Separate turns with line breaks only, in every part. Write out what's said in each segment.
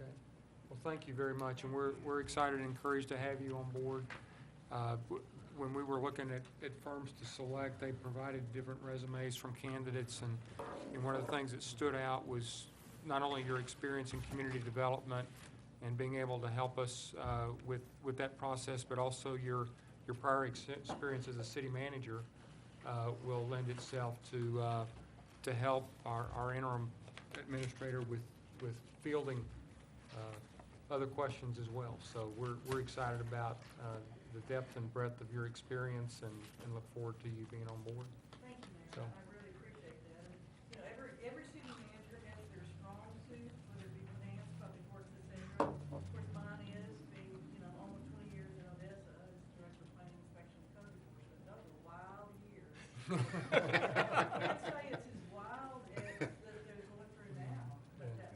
uh,
thank you very much, and we're, we're excited and encouraged to have you on board. Uh, w- When we were looking at, at firms to select, they provided different resumes from candidates, and, and one of the things that stood out was not only your experience in community development and being able to help us uh, with, with that process, but also your, your prior ex- experience as a city manager uh, will lend itself to, uh, to help our our interim administrator with, with fielding uh, other questions as well. So we're, we're excited about uh, the depth and breadth of your experience and, and look forward to you being on board.
Thank you,
So-
Mayor, I really appreciate that. And, You know, every, every city manager has their strong suits, whether it be finance, public works, et cetera. Of course, mine is being, you know, almost twenty years in Odessa as Director of Planning Inspection and Code Enforcement. Those were wild years. I'd say it's as wild as that they're going through now, but that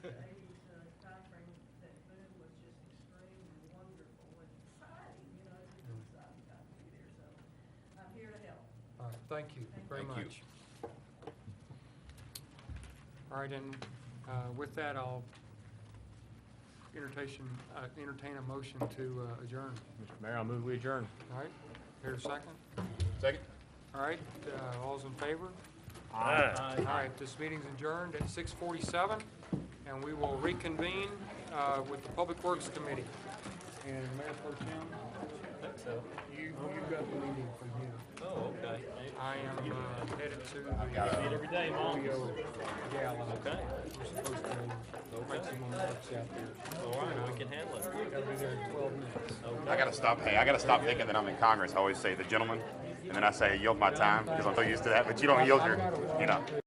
seventies to eighties timeframe, that boom was just extreme and wonderful and exciting, you know, it's just exciting time to be there, so I'm here to help.
All right, thank you very
Thank you.
much. All right, and uh, with that, I'll entertain, uh, entertain a motion to uh, adjourn.
Mr. Mayor, I'll move we adjourn.
All right, here a second.
Second?
All right, uh, all's in favor? All right, this meeting's adjourned at 6:47, and we will reconvene uh, with the Public Works Committee. And Mayor Pro Tem,
So,
you, you got the meeting from here.
oh, okay.
I am uh, headed to the
See it every day, Mom.
Rio Gala.
Okay,
We're supposed to make some more laps out there.
all right, we can handle it.
Gotta be there in 12 minutes.
I gotta stop. Hey, I gotta stop thinking that I'm in Congress. I always say the gentleman, and then I say yield my time because I'm so used to that. But you don't yield your, you know.